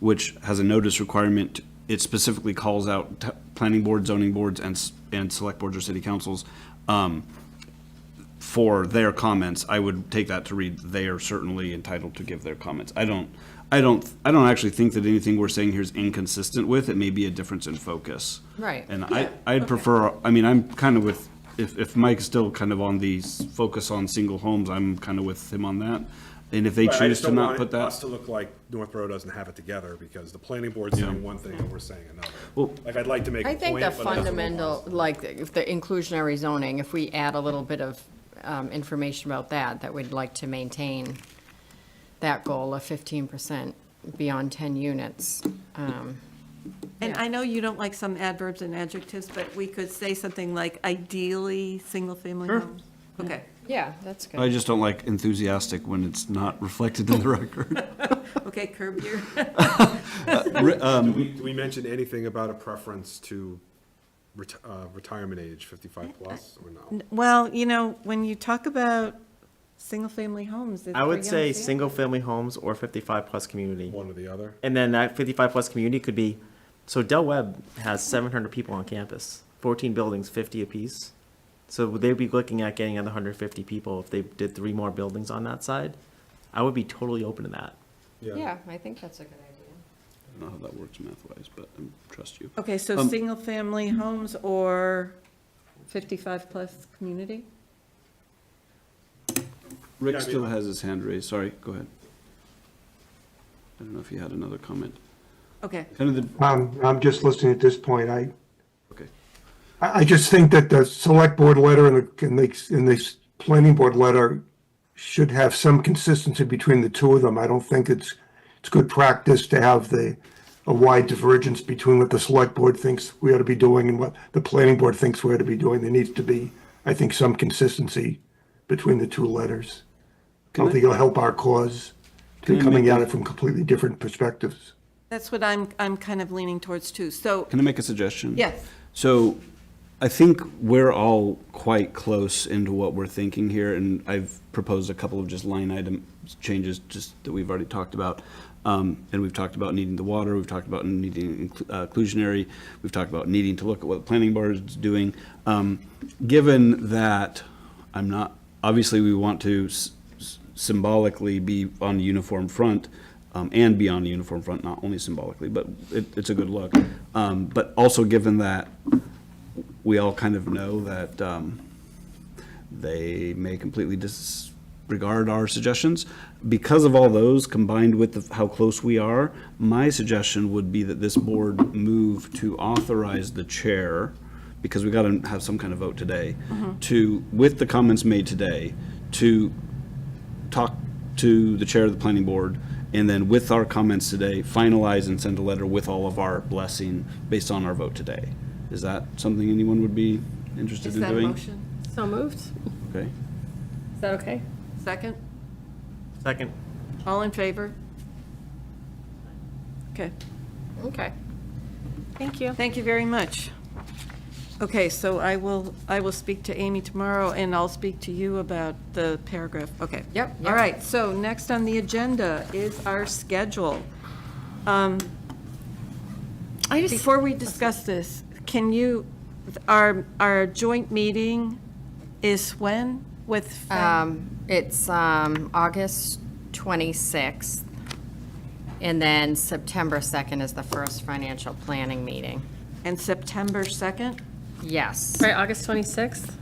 which has a notice requirement. It specifically calls out t- planning boards, zoning boards, and, s- and select boards or city councils um, for their comments. I would take that to read, they are certainly entitled to give their comments. I don't, I don't, I don't actually think that anything we're saying here is inconsistent with, it may be a difference in focus. Right. And I, I'd prefer, I mean, I'm kind of with, if, if Mike's still kind of on the s- focus on single homes, I'm kind of with him on that. And if they Right, I choose just to don't not want put it- that. us to look like Northborough doesn't have it together because the planning board's saying one thing and we're saying Well- another. Like, I'd like to make a I point. think the but doesn't look fundamental, honest. like, if the inclusionary zoning, if we add a little bit of um, information about that, that we'd like to maintain that goal of fifteen percent beyond ten units. um, And I know you don't like some adverbs and adjectives, but we could say something like ideally, single-family homes. Okay. Yeah, that's I good. just don't like enthusiastic when it's not reflected in the record. Okay, curb your, Do Um, we, do we mention anything about a preference to reti- uh, retirement age, fifty-five plus, or no? well, you know, when you talk about single-family homes. it's I for would young say families. single-family homes or 55-plus community. One or the other? And then that 55-plus community could be, so Del Webb has 700 people on campus, 14 buildings, 50 apiece. So would they be looking at getting another 150 people if they did three more buildings on that side? I would be totally open to that. Yeah, I think that's a good idea. I don't know how that works math-wise, but I trust you. Okay, so Um, single-family homes or 55-plus community? Rick Yeah, I mean- still has his hand raised, sorry, go ahead. I don't know if you had another comment. Okay, Kind of the, Um, I'm just listening at this point. I, okay. I I just think that the select board letter and the, and the, and this planning board letter should have some consistency between the two of them. I don't think it's, it's good practice to have the, a wide divergence between what the select board thinks we ought to be doing and what the planning board thinks we ought to be doing. There needs to be, I think, some consistency between the two letters. I don't think it'll help our cause to coming at it from completely different perspectives. that's what I'm, I'm kind of leaning towards too. So, Can I make a suggestion? Yes. So I think we're all quite close into what we're thinking here, and I've proposed a couple of just line item changes just that we've already talked about. Um, And we've talked about needing the water, we've talked about needing inclu- uh, inclusionary, we've talked about needing to look at what the planning board is doing. Um, Given that I'm not, obviously, we want to s- s- symbolically be on a uniform front um, and be on a uniform front, not only symbolically, but it, it's a good look. Um, But also given that we all kind of know that um, they may completely disregard our suggestions. Because of all those, combined with the- how close we are, my suggestion would be that this board move to authorize the chair, because we got to have some kind of vote today, Mm-hmm. to, with the comments made today, to talk to the chair of the planning board, and then with our comments today, finalize and send a letter with all of our blessing based on our vote today. Is that something anyone would be interested is in that a doing? motion? So moved. Okay. Is that okay? Second? Second, All in favor? Okay. Okay. Thank you. Thank you very much. Okay, so I will, I will speak to Amy tomorrow, and I'll speak to you about the paragraph, okay. Yep, All yep. right, so next on the agenda is our schedule. Um, Before we discuss this, can you, our, our joint meeting is when with? Frank? Um, it's, um, August twenty-sixth, and then September second is the first financial planning meeting. And September 2nd? Yes, All right, August 26th.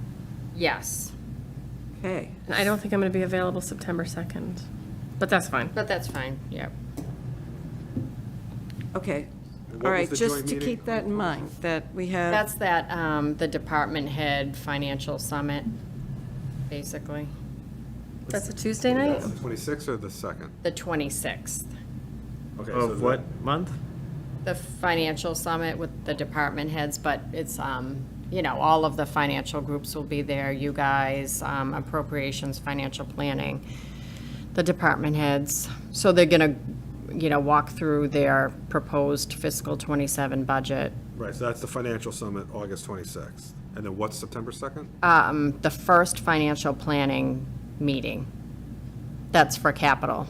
yes, Okay. And I don't think I'm going to be available September 2nd, but that's fine. but that's fine, yep. Okay, what all was right, the just joint to meeting? keep that in mind, that we have. That's that, um, the department head financial summit, basically, That's a Tuesday night? The twenty-sixth or the second? the 26th. Okay, so of the- what month? The financial summit with the department heads, but it's, um, you know, all of the financial groups will be there, you guys, um, appropriations, financial planning, the department heads. So they're gonna, you know, walk through their proposed fiscal 27 budget. Right, so that's the financial summit, August twenty-sixth. And then what's September second? Um, the first financial planning meeting. That's for capital.